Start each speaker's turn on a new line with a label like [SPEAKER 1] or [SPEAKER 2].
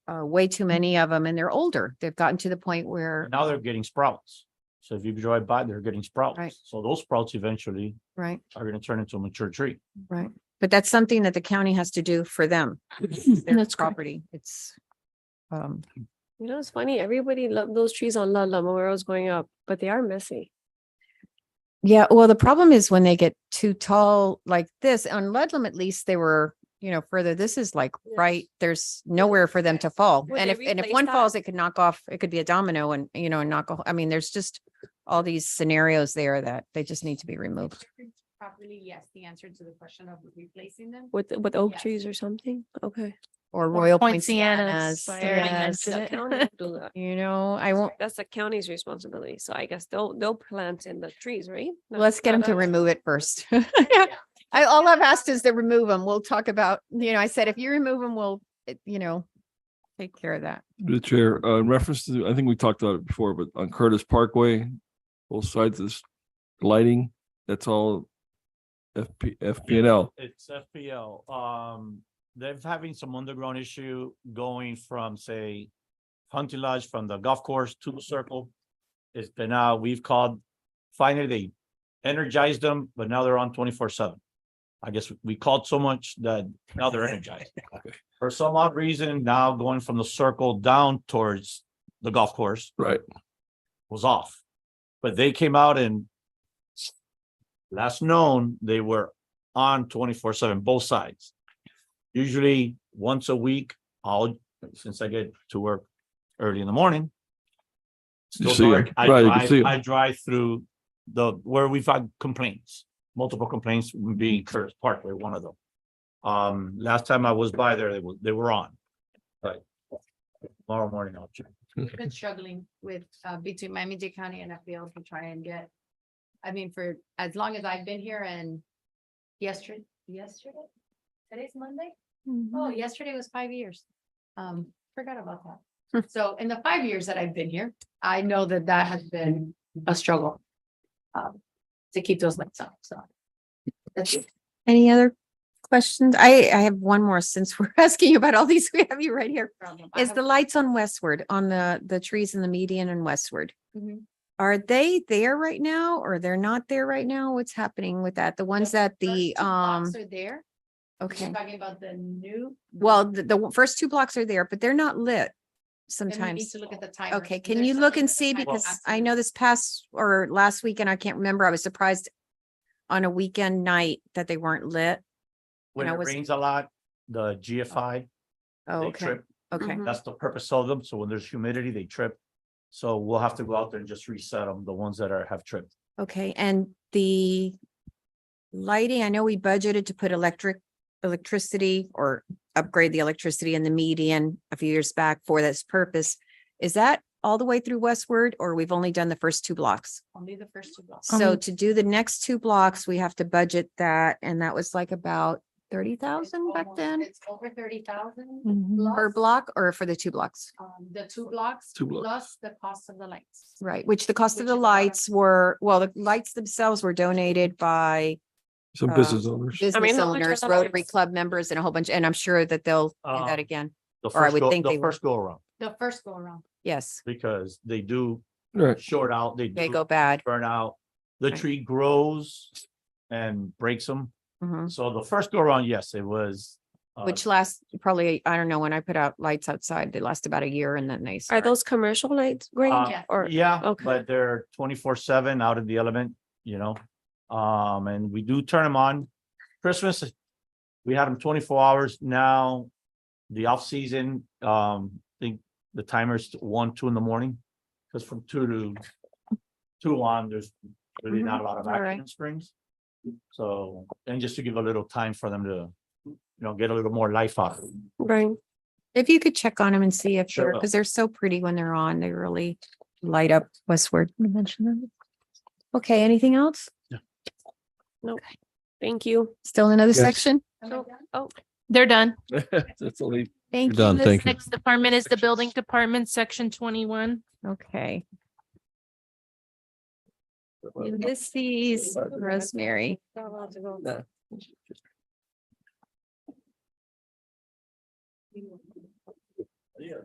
[SPEAKER 1] uh, way
[SPEAKER 2] Mm.
[SPEAKER 1] too many of them and they're older. They've gotten to the point where,
[SPEAKER 3] Now they're getting sprouts. So if you drive by, they're getting
[SPEAKER 1] Right.
[SPEAKER 3] sprouts. So those sprouts eventually
[SPEAKER 1] right,
[SPEAKER 3] are gonna turn into a mature tree.
[SPEAKER 1] right. But that's something that the county has to do for them. Their
[SPEAKER 2] That's correct.
[SPEAKER 1] property, it's. Um,
[SPEAKER 2] You know, it's funny, everybody loved those trees on La La where I was going up, but they are messy.
[SPEAKER 1] yeah, well, the problem is when they get too tall like this, on Ludlam at least they were, you know, further, this is like,
[SPEAKER 2] Yes.
[SPEAKER 1] right, there's nowhere for them to fall.
[SPEAKER 2] Would
[SPEAKER 1] And
[SPEAKER 2] they
[SPEAKER 1] if, and if
[SPEAKER 2] replace
[SPEAKER 1] one
[SPEAKER 2] that?
[SPEAKER 1] falls, it could knock off, it could be a domino and, you know, and knock, a whole- I mean, there's just all these scenarios there that they just need to be removed.
[SPEAKER 4] Properly, yes, the answer to the question of replacing them.
[SPEAKER 2] With, with oak
[SPEAKER 4] Yes.
[SPEAKER 2] trees or something? Okay.
[SPEAKER 1] or Royal
[SPEAKER 4] Poincianas,
[SPEAKER 1] Poincianas.
[SPEAKER 4] by
[SPEAKER 1] yeah.
[SPEAKER 4] Erin.
[SPEAKER 2] Yes, the county will do that.
[SPEAKER 1] You know, I won't,
[SPEAKER 2] That's the county's responsibility. So I guess they'll, they'll plant in the trees, right? Not-
[SPEAKER 1] let's get
[SPEAKER 2] not
[SPEAKER 1] them to
[SPEAKER 2] us.
[SPEAKER 1] remove it first. I, all I've asked is to remove them. We'll talk about, you know, I said, if you remove them, we'll, eh, you know, take care of that.
[SPEAKER 5] The chair, uh, in reference to, I think we talked about it before, but on Curtis Parkway, both sides of this lighting, that's all FP, FPNL.
[SPEAKER 3] It's FPL. Um, they're having some underground issue going from, say, Hunting Lodge from the golf course to the circle. It's been out, we've called, finally they energized them, but now they're on twenty-four seven. I guess we called so much that now they're energized. For some odd reason, now going from the circle down towards the golf course
[SPEAKER 5] Right.
[SPEAKER 3] was off. But they came out and last known, they were on twenty-four seven, both sides. Usually once a week, I'll, since I get to work early in the morning.
[SPEAKER 5] You
[SPEAKER 3] Still
[SPEAKER 5] see 'em.
[SPEAKER 3] dark, I
[SPEAKER 5] Right, you can see
[SPEAKER 3] drive,
[SPEAKER 5] 'em.
[SPEAKER 3] I drive through the, where we've had complaints, multiple complaints being Curtis Parkway, one of them. Um, last time I was by there, they were, they were on. But tomorrow morning, I'll check.
[SPEAKER 4] We've been struggling with, uh, between Miami-Dade County and FBL to try and get. I mean, for as long as I've been here and yesterday, yesterday, today's Monday?
[SPEAKER 1] Mm-hmm.
[SPEAKER 4] Oh, yesterday was five years. Um, forgot about
[SPEAKER 1] Hmm.
[SPEAKER 4] that. So in the five years that I've been here, I know that that has been a struggle. Um, to keep those lights up, so. That's it.
[SPEAKER 1] Any other questions? I, I have one more since we're asking you about all these, we have you right here.
[SPEAKER 4] I
[SPEAKER 1] Is
[SPEAKER 4] have-
[SPEAKER 1] the lights on Westward, on the, the trees in the median and Westward?
[SPEAKER 4] Mhm.
[SPEAKER 1] Are they there right now or they're not there right now? What's happening with that? The ones that the,
[SPEAKER 4] First two blocks
[SPEAKER 1] um,
[SPEAKER 4] Are there. You're
[SPEAKER 1] okay.
[SPEAKER 4] Talking about the new.
[SPEAKER 1] Well, the, the w- first two blocks are there, but they're not lit
[SPEAKER 4] then we need
[SPEAKER 1] sometimes.
[SPEAKER 4] To look at the timer.
[SPEAKER 1] Okay, can you look and see? Because I know this past or last weekend, I can't remember, I was surprised on a weekend night that they weren't lit.
[SPEAKER 3] When
[SPEAKER 1] I
[SPEAKER 3] it
[SPEAKER 1] was-
[SPEAKER 3] rains a lot, the GFI,
[SPEAKER 1] Oh,
[SPEAKER 3] they
[SPEAKER 1] okay, Mm.
[SPEAKER 3] trip.
[SPEAKER 1] okay.
[SPEAKER 2] Mhm.
[SPEAKER 3] That's the purpose of them. So when there's humidity, they trip. So we'll have to go out there and just reset them, the ones that are, have tripped.
[SPEAKER 1] Okay, and the lighting, I know we budgeted to put electric, electricity or upgrade the electricity in the median a few years back for this purpose. Is that all the way through Westward or we've only done the first two blocks?
[SPEAKER 4] Only the first two blocks.
[SPEAKER 1] So to do the next two blocks, we have to budget that and that was like about thirty thousand
[SPEAKER 4] It's
[SPEAKER 1] back
[SPEAKER 4] almost-
[SPEAKER 1] then?
[SPEAKER 4] It's over thirty thousand.
[SPEAKER 1] Mhm. Per block or for the two blocks?
[SPEAKER 4] Um, the two blocks.
[SPEAKER 5] Two blocks.
[SPEAKER 4] Plus the cost of the lights.
[SPEAKER 1] Right, which the cost of
[SPEAKER 4] Which
[SPEAKER 1] the
[SPEAKER 4] is about-
[SPEAKER 1] lights were, well, the lights themselves were donated by
[SPEAKER 5] Some
[SPEAKER 1] Uh,
[SPEAKER 5] business owners.
[SPEAKER 1] business
[SPEAKER 2] how much are
[SPEAKER 1] owners,
[SPEAKER 2] the
[SPEAKER 1] Rotary
[SPEAKER 2] lights?
[SPEAKER 1] Club members and a whole bunch, and I'm sure that they'll do
[SPEAKER 3] Um,
[SPEAKER 1] that again.
[SPEAKER 3] The
[SPEAKER 1] Or I
[SPEAKER 3] first
[SPEAKER 1] would
[SPEAKER 3] go,
[SPEAKER 1] think
[SPEAKER 3] the
[SPEAKER 1] they would.
[SPEAKER 3] first go around,
[SPEAKER 4] The first go around.
[SPEAKER 1] Yes,
[SPEAKER 3] because they do
[SPEAKER 5] Right.
[SPEAKER 3] short out, they
[SPEAKER 1] they
[SPEAKER 3] do
[SPEAKER 1] go bad.
[SPEAKER 3] burn out. The
[SPEAKER 1] Right.
[SPEAKER 3] tree grows and breaks them.
[SPEAKER 1] Mhm.
[SPEAKER 3] So the first go around, yes, it was. uh,
[SPEAKER 1] Which lasts probably, I don't know, when I put out lights outside, they last about a year and then they.
[SPEAKER 2] Are
[SPEAKER 1] start-
[SPEAKER 2] those commercial lights, Greg?
[SPEAKER 1] Um,
[SPEAKER 3] Uh,
[SPEAKER 2] Or,
[SPEAKER 3] Yeah,
[SPEAKER 2] okay.
[SPEAKER 3] but they're twenty-four seven out in the element, you know, um, and we do turn them on. Christmas, we had them twenty-four hours now. The off-season, um, I think the timer's one, two in the morning, because from two to two on, there's really not a lot of
[SPEAKER 1] All right.
[SPEAKER 3] action in Springs. So, and just to give a little time for them to, you know, get a little more life out of it.
[SPEAKER 2] right?
[SPEAKER 1] If you could check on them and see if
[SPEAKER 3] Sure
[SPEAKER 1] they're,
[SPEAKER 3] will.
[SPEAKER 1] because they're so pretty when they're on, they really light up westward. You mentioned them. Okay, anything else?
[SPEAKER 2] Thank you.
[SPEAKER 1] Still another
[SPEAKER 5] Yes.
[SPEAKER 1] section?
[SPEAKER 4] Am I
[SPEAKER 2] So-
[SPEAKER 4] done?
[SPEAKER 6] They're done.
[SPEAKER 5] That's all they
[SPEAKER 1] Thank you.
[SPEAKER 5] done.
[SPEAKER 6] This
[SPEAKER 5] thank you.
[SPEAKER 6] Next department is the building department, section twenty-one.
[SPEAKER 1] Okay. Ulysses, Rosemary.
[SPEAKER 2] Not allowed to go.
[SPEAKER 5] No.